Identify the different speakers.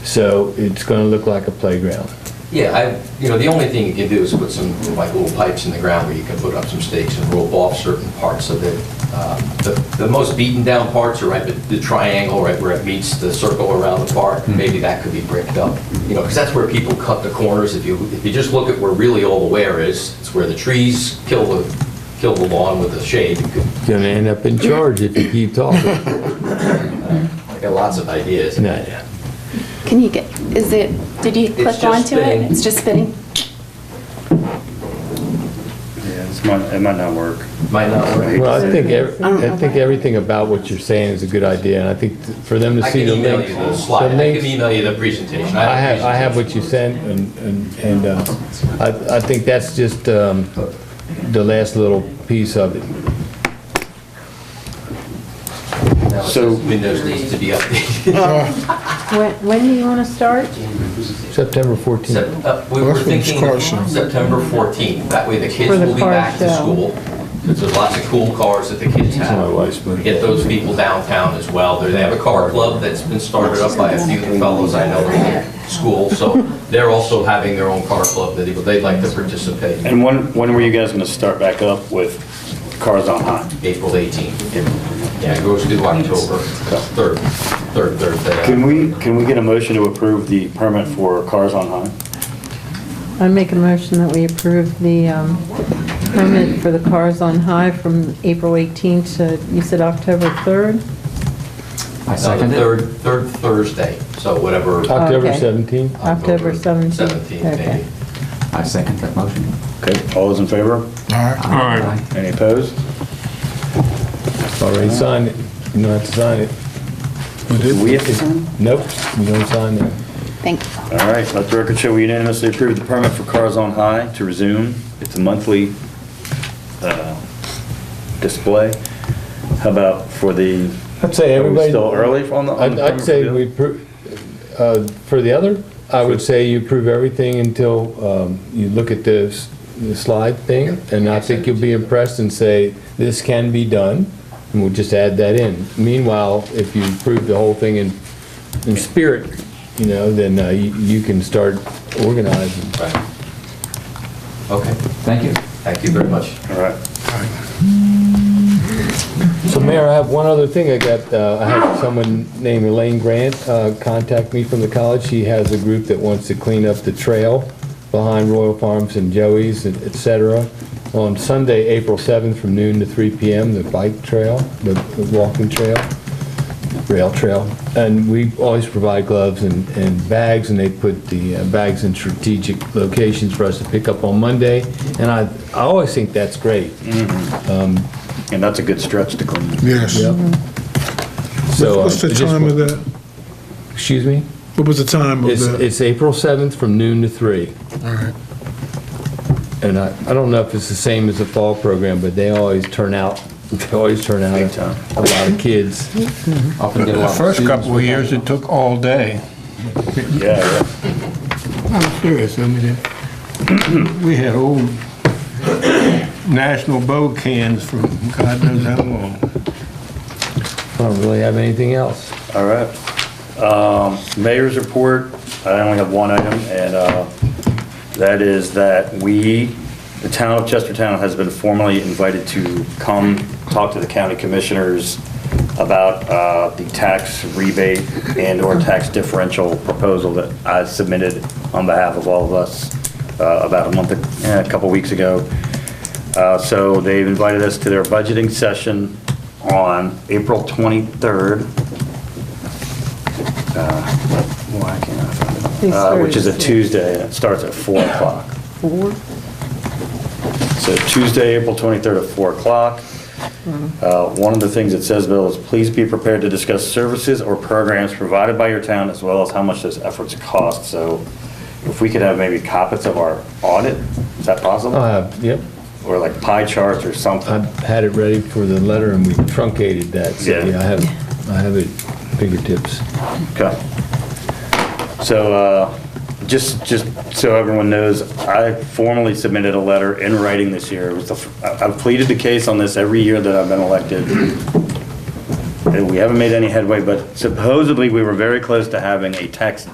Speaker 1: So it's going to look like a playground.
Speaker 2: Yeah, I, you know, the only thing you can do is put some, like, little pipes in the ground where you can put up some stakes and rope off certain parts of it. Um, the- The most beaten down parts are right, at the triangle, right where it meets the circle around the park,
Speaker 1: Hmm.
Speaker 2: maybe that could be bricked up, you know, because that's where people cut the corners. If you, if you just look at where really all the wear is, it's where the trees kill the, kill the lawn with the shade. You could-
Speaker 1: You're going to end up in charge if you keep talking.
Speaker 2: I got lots of ideas.
Speaker 1: No, no.
Speaker 3: Can you get, is it, did you
Speaker 2: It's
Speaker 3: click
Speaker 2: just
Speaker 3: onto
Speaker 2: spinning.
Speaker 3: it? It's just spinning?
Speaker 4: Yeah, it's might, it might not work.
Speaker 2: Might not work.
Speaker 1: Well, I think, ev- I think everything about what you're saying is a good idea, and I think for them to
Speaker 2: I
Speaker 1: see the
Speaker 2: can email
Speaker 1: links.
Speaker 2: you the
Speaker 1: the
Speaker 2: slide, I
Speaker 1: links-
Speaker 2: can email you the presentation.
Speaker 1: I
Speaker 2: a
Speaker 1: have, I have
Speaker 2: presentation.
Speaker 1: what you sent, and, and- and uh, I, I think that's just um, the last little piece of it.
Speaker 2: Now, it
Speaker 4: So-
Speaker 2: says Windows needs to be updated.
Speaker 5: When, when do you want to start?
Speaker 1: September 14th.
Speaker 2: Sep- uh, We were
Speaker 6: That's when it's
Speaker 2: thinking
Speaker 6: caution.
Speaker 2: September 14th, that way the kids
Speaker 5: For the
Speaker 2: will be
Speaker 5: car
Speaker 2: back to
Speaker 5: show.
Speaker 2: school. Because there's lots of cool cars that the kids have.
Speaker 1: my wife's birthday.
Speaker 2: Get those people downtown as well. They have a car club that's been started up by a few of the fellows I know in school. So they're also having their own car club that they'd like to participate in
Speaker 4: And when, when were you guys gonna start back up with cars on hot?
Speaker 2: April 18th. Yeah, it goes through October 3rd, 3rd Thursday.
Speaker 4: Can we, can we get a motion to approve the permit for cars on hot?
Speaker 5: I make a motion that we approve the um, permit for the cars on high from April 18th to, you said October 3rd?
Speaker 2: I second Uh, Third, third Thursday, so whatever.
Speaker 1: October
Speaker 5: Okay.
Speaker 1: 17th.
Speaker 5: October 17th.
Speaker 2: 17th, maybe.
Speaker 5: Okay.
Speaker 7: I second that motion.
Speaker 4: Okay, all those in favor?
Speaker 6: All
Speaker 7: Aye.
Speaker 4: Any opposed?
Speaker 1: Already signed it. You don't have to sign it.
Speaker 4: Do we have to sign?
Speaker 1: Nope, you don't sign it.
Speaker 3: Thank you.
Speaker 4: All right, let the record show we unanimously approved the permit for cars on high to resume. It's a monthly, uh, display. How about for the,
Speaker 1: I'd say
Speaker 4: are we
Speaker 1: everybody.
Speaker 4: still early on the? on
Speaker 1: I'd
Speaker 4: the
Speaker 1: I'd
Speaker 4: permit
Speaker 1: say
Speaker 4: for
Speaker 1: we, pro- uh, for the other, I would say you prove everything until um, you look at the s- the slide thing, and I think you'll be impressed and say, this can be done, and we'll just add that in. Meanwhile, if you prove the whole thing in, in spirit, you know, then uh, you you can start organizing.
Speaker 2: Right. Okay,
Speaker 7: Thank you.
Speaker 2: thank you very much.
Speaker 4: bill? All right.
Speaker 1: So Mayor, I have one other thing. I got, uh, I had someone named Elaine Grant uh, contact me from the college. She has a group that wants to clean up the trail behind Royal Farms and Joey's, and et cetera, on Sunday, April 7th, from noon to 3 p.m., the bike trail, the the walking trail, rail trail. And we always provide gloves and and bags, and they put the uh, bags in strategic locations for us to pick up on Monday. And I I always think that's great.
Speaker 4: And that's a good stretch to clean.
Speaker 6: Yes.
Speaker 1: So, uh,
Speaker 6: What's
Speaker 1: I
Speaker 6: the
Speaker 1: just
Speaker 6: time
Speaker 1: wa-
Speaker 6: of that?
Speaker 1: Excuse me?
Speaker 6: What was the time of
Speaker 1: It's,
Speaker 6: that?
Speaker 1: it's April 7th from noon to 3.
Speaker 6: All right.
Speaker 1: And I, I don't know if it's the same as the fall program, but they always turn out, they always turn out
Speaker 4: Big time.
Speaker 1: a- a lot of kids.
Speaker 7: Often get a
Speaker 8: The
Speaker 7: lot of
Speaker 8: first
Speaker 7: students
Speaker 8: couple of
Speaker 7: with-
Speaker 8: years, it took all day.
Speaker 4: Yeah, yeah.
Speaker 8: I'm serious, I mean, it- we had old national bow cans from God knows how long.
Speaker 1: I don't really have anything else.
Speaker 4: All right. Um, Mayor's report, I only have one item, and uh, that is that we, the town of Chestertown has been formally invited to come talk to the county commissioners about uh, the tax rebate and/or tax differential proposal that I submitted on behalf of all of us uh, about a month, eh, a couple weeks ago. Uh, So they've invited us to their budgeting session on April 23rd. Why can't I find it?
Speaker 5: They
Speaker 4: Uh, Which is a
Speaker 5: started-
Speaker 4: Tuesday, and it starts at 4 o'clock.
Speaker 5: Four?
Speaker 4: So Tuesday, April 23rd at 4 o'clock. Uh, One of the things it says, Bill, is please be prepared to discuss services or programs provided by your town, as well as how much those efforts cost. So if we could have maybe copies of our audit, is that
Speaker 1: I'll
Speaker 4: possible?
Speaker 1: Oh, have, yep,
Speaker 4: Or like pie charts or
Speaker 1: I
Speaker 4: something?
Speaker 1: had it ready for the letter and we truncated that, so
Speaker 4: Yeah.
Speaker 1: yeah, I have, I have it fingertips.
Speaker 4: Okay. So, uh, just, just so everyone knows, I formally submitted a letter in writing this year. It was the, f- I- I've pleaded the case on this every year that I've been elected. And we haven't made any headway, but supposedly we were very close to having a tax